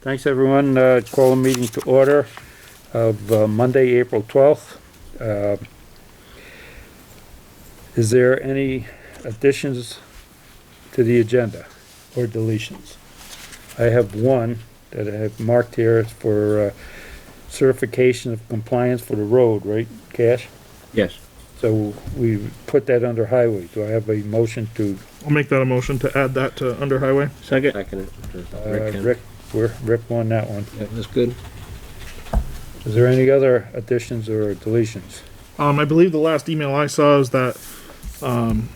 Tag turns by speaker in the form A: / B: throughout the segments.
A: Thanks, everyone. Uh, Call a meeting to order of uh, Monday, April 12th. Uh, Is there any additions to the agenda or deletions? I have one that I have marked here for uh, certification of compliance for the road, right, Cash?
B: Yes.
A: So we put that under highway. Do I have a motion to,
C: I'll make that a motion to add that to under highway.
B: Second. Second.
A: uh, Rick, we're- Rick won that one.
B: That was good.
A: Is there any other additions or deletions?
C: Um, I believe the last email I saw is that, um,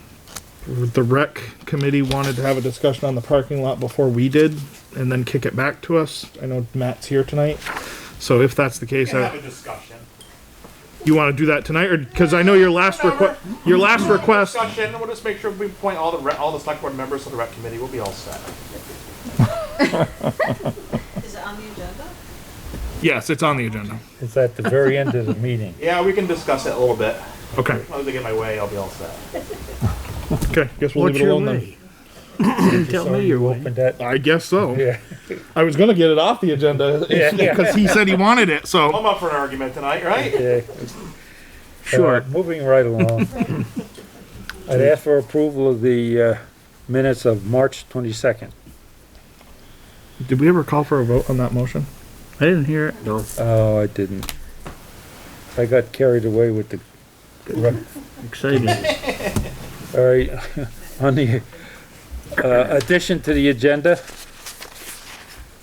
C: the rec committee wanted to have a discussion on the parking lot before we did and then kick it back to us. I know Matt's here tonight. So if that's the case,
D: can have
C: I,
D: a discussion.
C: you wanna do that tonight or, cause I know your last request, your last request,
D: Discussion, we'll just make sure we point all the, re- all the select board members to the rec committee, we'll be all set.
E: Is it on the agenda?
C: yes, it's on the agenda.
A: It's at the very end of the meeting.
D: Yeah, we can discuss it a little bit.
C: Okay,
D: As long as I get my way, I'll be all set.
C: okay, guess we'll leave it alone then.
A: Tell me you're Open that,
C: I guess so.
A: yeah.
C: I was gonna get it off the agenda
A: Yeah.
C: because he said he wanted it, so.
D: I'm up for an argument tonight, right?
A: yeah. Uh, Moving right along. I'd ask for approval of the, uh, minutes of March twenty-second.
C: Did we ever call for a vote on that motion?
B: I didn't hear it. No.
A: Oh, I didn't. I got carried away with the,
B: Exciting.
A: all right, on the, uh, addition to the agenda.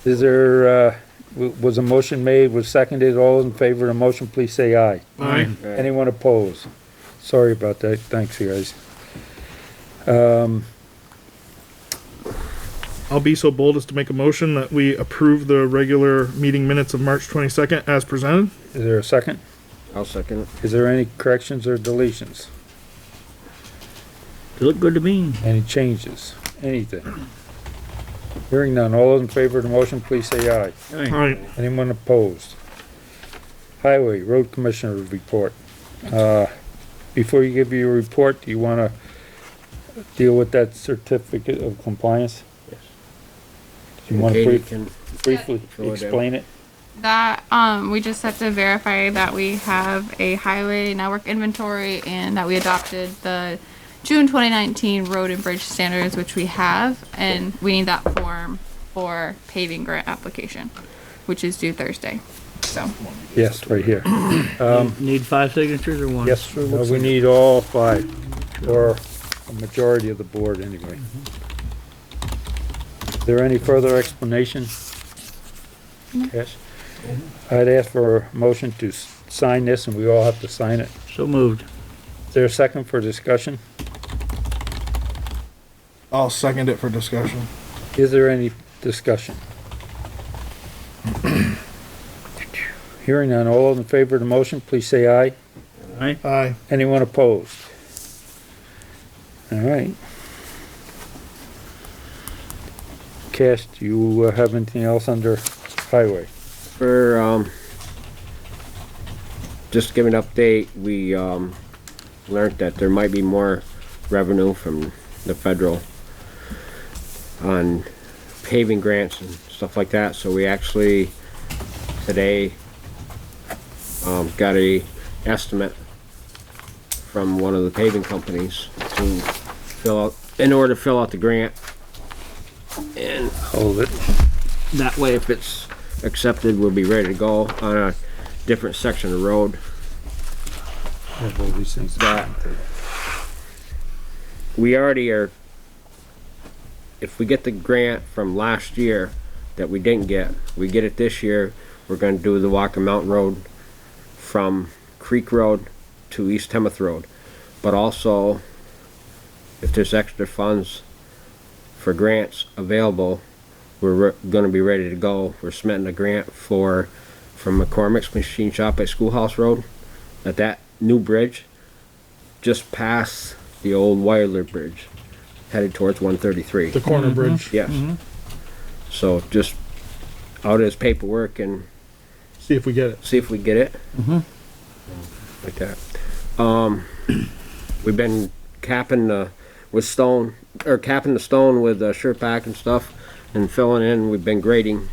A: Is there, uh, w- was a motion made, was seconded, all in favor of the motion, please say aye.
C: Aye.
A: Anyone opposed? Sorry about that, thanks, you guys. Um,
C: I'll be so bold as to make a motion that we approve the regular meeting minutes of March twenty-second as presented.
A: is there a second?
B: I'll second it.
A: Is there any corrections or deletions?
B: They look good to me.
A: Any changes? Anything? Hearing none, all those in favor of the motion, please say aye.
C: All right,
A: Anyone opposed? Highway, road commissioner report. Uh, before you give your report, do you wanna deal with that certificate of compliance?
B: Yes.
A: Do you wanna
B: Katie
A: brief-
B: can,
A: briefly
B: Sure, Deb.
A: explain it?
F: That um, we just have to verify that we have a highway network inventory and that we adopted the June 2019 road and bridge standards, which we have, and we need that form for paving grant application, which is due Thursday. So
A: Yes, right here. Um,
G: Need five signatures or one?
A: Yes, uh, we need all five, or a majority of the board anyway. Is there any further explanation? Yes. I'd ask for a motion to s- sign this, and we all have to sign it.
G: So moved.
A: Is there a second for discussion?
C: I'll second it for discussion.
A: Is there any discussion? Hearing none, all in favor of the motion, please say aye.
C: Aye.
A: Anyone opposed? All right. Cash, do you uh, have anything else under highway?
B: for, um, just give an update, we, um, learned that there might be more revenue from the federal on paving grants and stuff like that, so we actually, today, um, got a estimate from one of the paving companies to fill out, in order to fill out the grant. And
A: Hold it.
B: that way, if it's accepted, we'll be ready to go on a different section of road
A: Have all these things.
B: that we already are, if we get the grant from last year that we didn't get, we get it this year, we're gonna do the Walker Mountain Road from Creek Road to East Hemmoth Road. But also, if there's extra funds for grants available, we're re- gonna be ready to go. We're submitting a grant for, from McCormick's Machine Shop at Schoolhouse Road, at that new bridge just past the old Wilder Bridge, headed towards 133.
C: The corner bridge.
B: Yes. So just out his paperwork and
C: See if we get it.
B: see if we get it. Like that. Um, we've been capping the, with stone, or capping the stone with uh, sure pack and stuff and filling in. We've been grading